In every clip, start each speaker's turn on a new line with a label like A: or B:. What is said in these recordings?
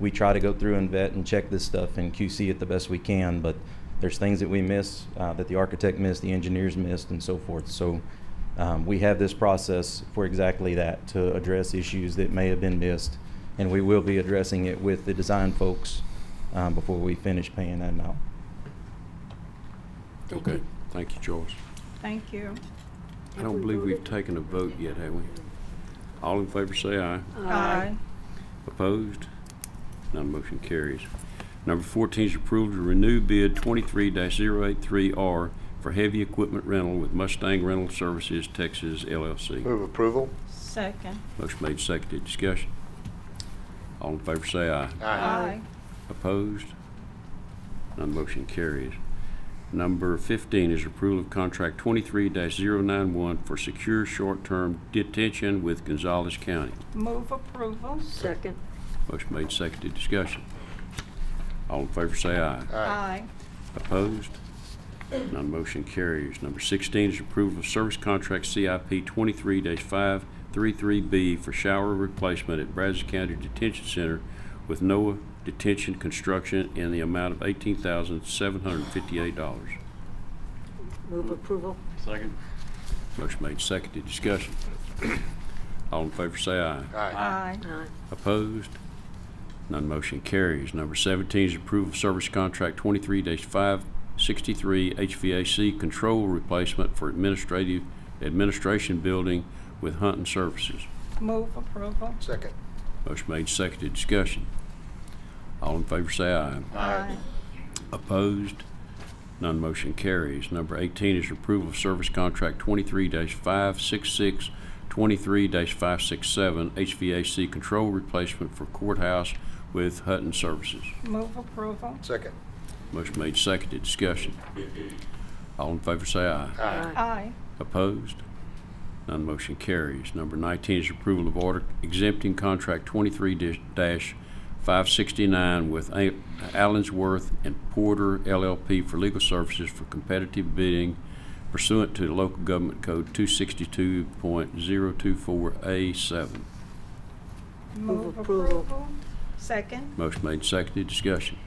A: we try to go through and vet and check this stuff and QC it the best we can, but there's things that we miss, uh, that the architect missed, the engineers missed, and so forth. So um, we have this process for exactly that, to address issues that may have been missed, and we will be addressing it with the design folks um, before we finish paying that out.
B: Okay, thank you, Joyce.
C: Thank you.
B: I don't believe we've taken a vote yet, have we? All in favor say aye.
C: Aye.
B: Opposed? None motion carries. Number 14 is approval to renew bid 23-083R for heavy equipment rental with Mustang Rental Services Texas LLC.
D: Move approval.
C: Second.
B: Motion made, seconded, discussion. All in favor say aye.
C: Aye.
B: Opposed? None motion carries. Number 15 is approval of contract 23-091 for secure short-term detention with Gonzales County.
C: Move approval.
E: Second.
B: Motion made, seconded, discussion. All in favor say aye.
C: Aye.
B: Opposed? None motion carries. Number 16 is approval of service contract CIP 23-533B for shower replacement at Brazos County Detention Center with NOAA Detention Construction in the amount of $18,758.
E: Move approval.
F: Second.
B: Motion made, seconded. Discussion. All in favor say aye.
C: Aye.
E: Aye.
B: Opposed? None motion carries. Number 17 is approval of service contract 23-563 HVAC control replacement for administrative, administration building with Hunting Services.
C: Move approval.
D: Second.
B: Motion made, seconded, discussion. All in favor say aye.
C: Aye.
B: Opposed? None motion carries. Number 18 is approval of service contract 23-566, 23-567 HVAC control replacement for courthouse with Hutton Services.
C: Move approval.
D: Second.
B: Motion made, seconded, discussion. All in favor say aye.
E: Aye.
C: Aye.
B: Opposed? None motion carries. Number 19 is approval of order exempting contract 23-569 with A- Allensworth and Porter LLP for legal services for competitive bidding pursuant to the local government code 262.024A7.
C: Move
E: approval.
C: approval. Second.
B: Motion made, seconded, discussion.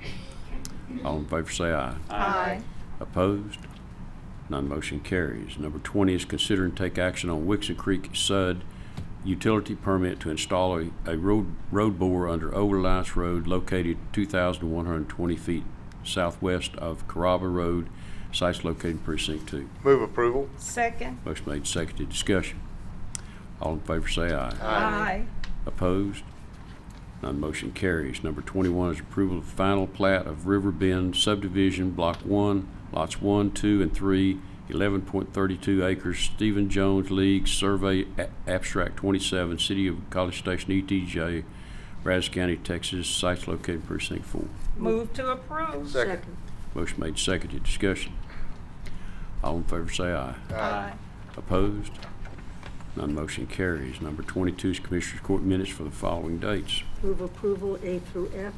B: All in favor say aye.
C: Aye.
B: Opposed? None motion carries. Number 20 is consider and take action on Wixon Creek Sud utility permit to install a a road road bore under Old Alliance Road located 2,120 feet southwest of Carrabba Road, sites located in precinct 2.
D: Move approval.
C: Second.
B: Motion made, seconded, discussion. All in favor say aye.
C: Aye.
B: Opposed? None motion carries. Number 21 is approval of final plat of River Bend subdivision, Block 1, Lots 1, 2, and 3, 11.32 acres, Stephen Jones League, Survey A- Abstract 27, City of College Station, ETJ, Brazos County, Texas, sites located precinct 4.
C: Move to approve.
D: Second.
B: Motion made, seconded, discussion. All in favor say aye.
C: Aye.
B: Opposed? None motion carries. Number 22 is Commissioners Court minutes for the following dates.
E: Move approval A through F.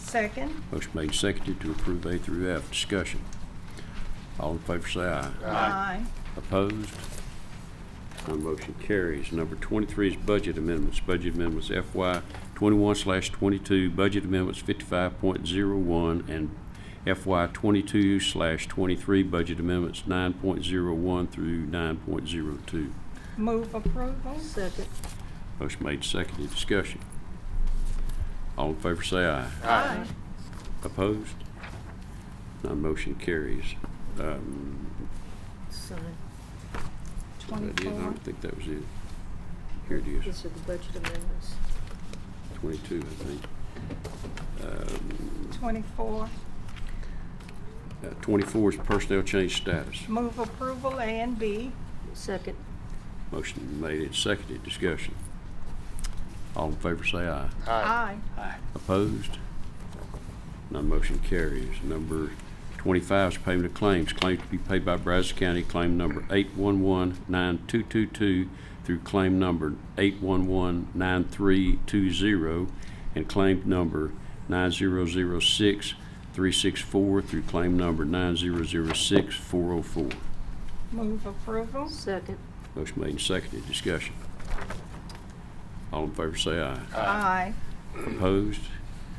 C: Second.
B: Motion made, seconded to approve A through F. Discussion. All in favor say aye.
C: Aye.
B: Opposed? None motion carries. Number 23 is budget amendments. Budget amendments FY 21/22, budget amendments 55.01, and FY 22/23, budget amendments 9.01 through 9.02.
C: Move approval.
E: Second.
B: Motion made, seconded. Discussion. All in favor say aye.
C: Aye.
B: Opposed? None motion carries. Um,
E: Sign.
B: that is- I
C: Twenty-four.
B: don't think that was it. Here it is,
E: These are the budget amendments.
B: 22, I think. Um,
C: Twenty-four.
B: uh, 24 is personnel change status.
C: Move approval A and B.
E: Second.
B: Motion made and seconded. Discussion. All in favor say aye.
C: Aye.
B: Opposed? None motion carries. Number 25 is payment of claims. Claims to be paid by Brazos County, claim number 8119222 through claim number 8119320 and claim number 9006364 through claim number 9006404.
C: Move approval.
E: Second.
B: Motion made and seconded. Discussion. All in favor say aye.
C: Aye.
B: Opposed?